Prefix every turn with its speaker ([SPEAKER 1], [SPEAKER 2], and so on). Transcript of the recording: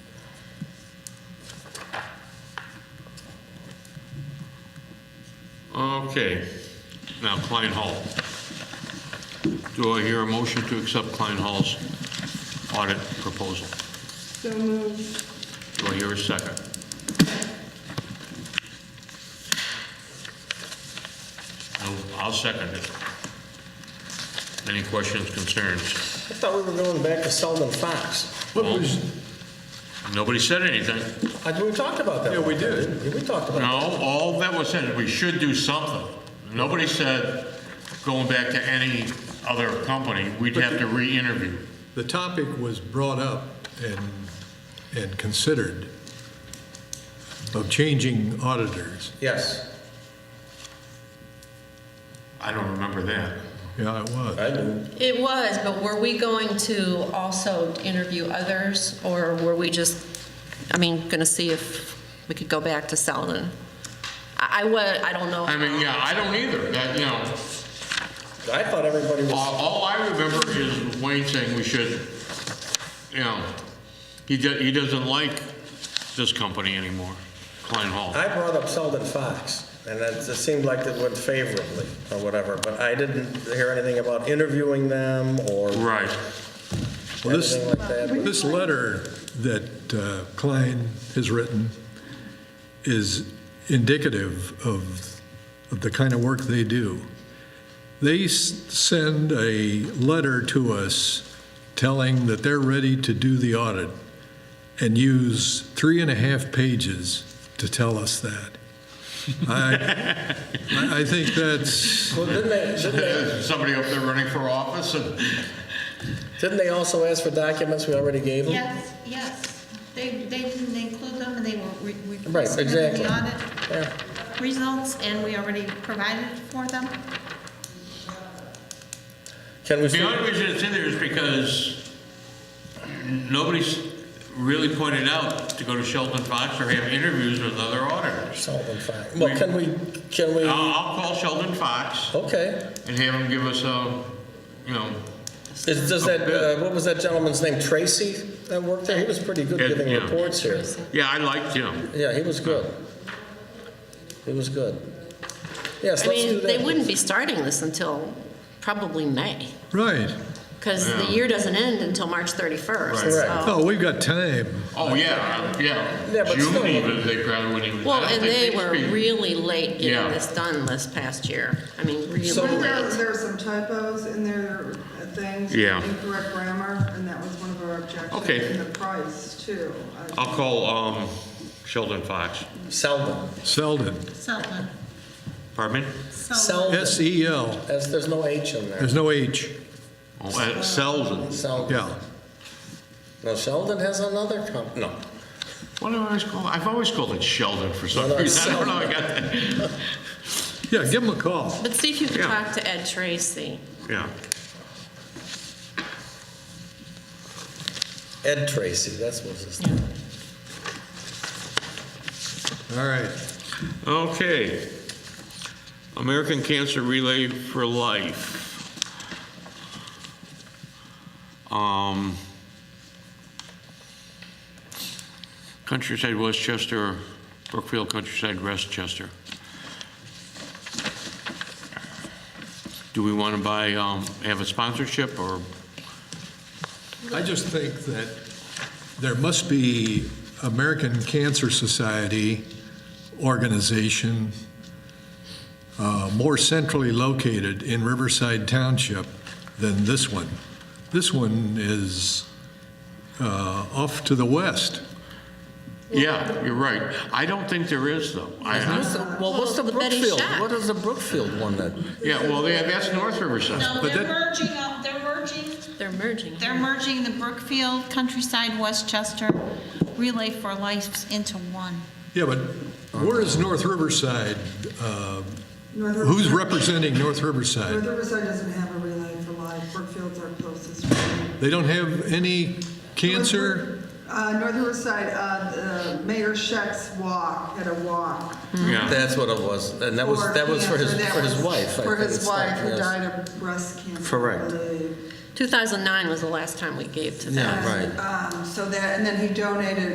[SPEAKER 1] Okay, now Klein Hall. Do I hear a motion to accept Klein Hall's audit proposal?
[SPEAKER 2] So moved.
[SPEAKER 1] Do I hear a second? No, I'll second it. Any questions, concerns?
[SPEAKER 3] I thought we were going back to Selden Fox.
[SPEAKER 4] What was,
[SPEAKER 1] Nobody said anything.
[SPEAKER 3] I, we talked about that.
[SPEAKER 4] Yeah, we
[SPEAKER 3] one time,
[SPEAKER 4] did.
[SPEAKER 3] didn't We We talked about it.
[SPEAKER 1] No, all that was said, we should do something. Nobody said, going back to any other company, we'd have to re-interview.
[SPEAKER 4] the topic was brought up and, and considered of changing auditors.
[SPEAKER 3] Yes,
[SPEAKER 1] I don't remember that.
[SPEAKER 4] Yeah, it was.
[SPEAKER 3] I do.
[SPEAKER 2] It was, but were we going to also interview others, or were we just, I mean, going to see if we could go back to Selden? I, I wa, I don't know.
[SPEAKER 1] I mean, yeah, I don't either, that, you know,
[SPEAKER 3] I thought everybody was,
[SPEAKER 1] all, all I remember is Wayne saying we should, you know, he do, he doesn't like this company anymore, Klein Hall.
[SPEAKER 3] I brought up Selden Fox, and it it seemed like it went favorably or whatever, but I didn't hear anything about interviewing them or
[SPEAKER 1] Right,
[SPEAKER 4] Well, this,
[SPEAKER 3] anything like that.
[SPEAKER 4] this letter that uh, Klein has written is indicative of, of the kind of work they do. They s- send a letter to us telling that they're ready to do the audit and use three and a half pages to tell us that. I, I I think that's,
[SPEAKER 3] Well, didn't they, didn't they,
[SPEAKER 1] somebody up there running for office and,
[SPEAKER 3] didn't they also ask for documents we already gave them?
[SPEAKER 5] Yes, yes. They, they didn't include them, and they were re-
[SPEAKER 3] Right,
[SPEAKER 5] requested in
[SPEAKER 3] exactly.
[SPEAKER 5] the audit
[SPEAKER 3] Yeah.
[SPEAKER 5] results, and we already provided for them.
[SPEAKER 3] Can we see?
[SPEAKER 1] the only reason it's in there is because nobody's really pointed out to go to Sheldon Fox or have interviews with other auditors.
[SPEAKER 3] Selden Fox. Well, can we, can we,
[SPEAKER 1] I'll, I'll call Sheldon Fox
[SPEAKER 3] okay.
[SPEAKER 1] and have him give us a, you know,
[SPEAKER 3] Is, does that, uh, what was that gentleman's name, Tracy that worked there? He was pretty good
[SPEAKER 1] Yeah,
[SPEAKER 3] giving
[SPEAKER 1] yeah.
[SPEAKER 3] reports here.
[SPEAKER 1] yeah, I liked him.
[SPEAKER 3] Yeah, he was good. He was good. Yes,
[SPEAKER 6] I
[SPEAKER 3] let's do
[SPEAKER 6] mean, they
[SPEAKER 3] that.
[SPEAKER 6] wouldn't be starting this until probably May,
[SPEAKER 4] right.
[SPEAKER 6] because
[SPEAKER 1] Yeah.
[SPEAKER 6] the year doesn't end until March 31st.
[SPEAKER 1] Right.
[SPEAKER 6] so-
[SPEAKER 4] Oh, we've got time.
[SPEAKER 1] Oh, yeah,
[SPEAKER 3] Yeah,
[SPEAKER 1] yeah.
[SPEAKER 3] but
[SPEAKER 1] June
[SPEAKER 3] still-
[SPEAKER 1] even, they probably wouldn't even. I
[SPEAKER 6] Well,
[SPEAKER 1] don't
[SPEAKER 6] and
[SPEAKER 1] think
[SPEAKER 6] they
[SPEAKER 1] they'd
[SPEAKER 6] were
[SPEAKER 1] be-
[SPEAKER 6] really late
[SPEAKER 1] Yeah.
[SPEAKER 6] getting this done this past year. I mean, really
[SPEAKER 3] So-
[SPEAKER 7] There were-
[SPEAKER 6] late.
[SPEAKER 7] there were some typos in there, uh, things.
[SPEAKER 1] Yeah.
[SPEAKER 7] Incorrect grammar, and that was one of our objections.
[SPEAKER 1] Okay.
[SPEAKER 7] And the price, too. Uh, I-
[SPEAKER 1] I'll call, um, Sheldon Fox.
[SPEAKER 3] Seldon.
[SPEAKER 4] Selden,
[SPEAKER 5] Selden.
[SPEAKER 1] Pardon me?
[SPEAKER 5] Selden.
[SPEAKER 3] Seldon.
[SPEAKER 4] S-E-L.
[SPEAKER 3] As- There's no H in there.
[SPEAKER 4] There's no H,
[SPEAKER 1] Oh, uh, Selden.
[SPEAKER 3] Seldon.
[SPEAKER 4] yeah.
[SPEAKER 3] No, Sheldon has another comp, no.
[SPEAKER 1] What do I always call, I've always called it Sheldon for some
[SPEAKER 3] No, no,
[SPEAKER 1] reason. I don't know, I
[SPEAKER 3] Selden.
[SPEAKER 1] got that.
[SPEAKER 4] Yeah, give them a call.
[SPEAKER 6] But see if you can
[SPEAKER 1] Yeah.
[SPEAKER 6] talk to Ed Tracy.
[SPEAKER 1] Yeah,
[SPEAKER 3] Ed Tracy, that's what his name.
[SPEAKER 4] All right.
[SPEAKER 1] okay. American Cancer Relay for Life. Um, Countryside Westchester, Brookfield Countryside Westchester. Do we want to buy, um, have a sponsorship or,
[SPEAKER 4] I just think that there must be American Cancer Society organization uh, more centrally located in Riverside Township than this one. This one is uh, off to the west.
[SPEAKER 1] yeah, you're right. I don't think there is though. I-
[SPEAKER 3] What's the- Well, what's the
[SPEAKER 6] Well, the Betty
[SPEAKER 3] Brookfield?
[SPEAKER 6] Shack.
[SPEAKER 3] What is the Brookfield one then?
[SPEAKER 1] Yeah, well, they- that's North Riverside.
[SPEAKER 5] No,
[SPEAKER 4] But
[SPEAKER 5] they're
[SPEAKER 4] that-
[SPEAKER 5] merging, up- they're merging,
[SPEAKER 6] They're merging.
[SPEAKER 5] they're
[SPEAKER 6] here.
[SPEAKER 5] merging the Brookfield, Countryside, Westchester Relay for Life into one.
[SPEAKER 4] Yeah, but where is North Riverside? Uh,
[SPEAKER 7] North
[SPEAKER 4] Who's
[SPEAKER 7] Riverside-
[SPEAKER 4] representing North
[SPEAKER 7] North
[SPEAKER 4] Riverside?
[SPEAKER 7] Riverside doesn't have a relay for life. Brookfield's our closest. relay.
[SPEAKER 4] They don't have any cancer?
[SPEAKER 7] Uh, North Riverside, uh, uh, Mayor Scheck's walk, had a walk.
[SPEAKER 1] Yeah.
[SPEAKER 3] That's what it was, and that was, that was for his,
[SPEAKER 7] cancer. That
[SPEAKER 3] for his
[SPEAKER 7] was
[SPEAKER 3] wife. I
[SPEAKER 7] For
[SPEAKER 3] think
[SPEAKER 7] his
[SPEAKER 3] it's not-
[SPEAKER 7] wife, who
[SPEAKER 3] yes.
[SPEAKER 7] died of breast cancer. I
[SPEAKER 3] Correct.
[SPEAKER 7] believe.
[SPEAKER 6] 2009 was the last time we gave to them.
[SPEAKER 3] Yeah, right.
[SPEAKER 7] Um, So that, and then he donated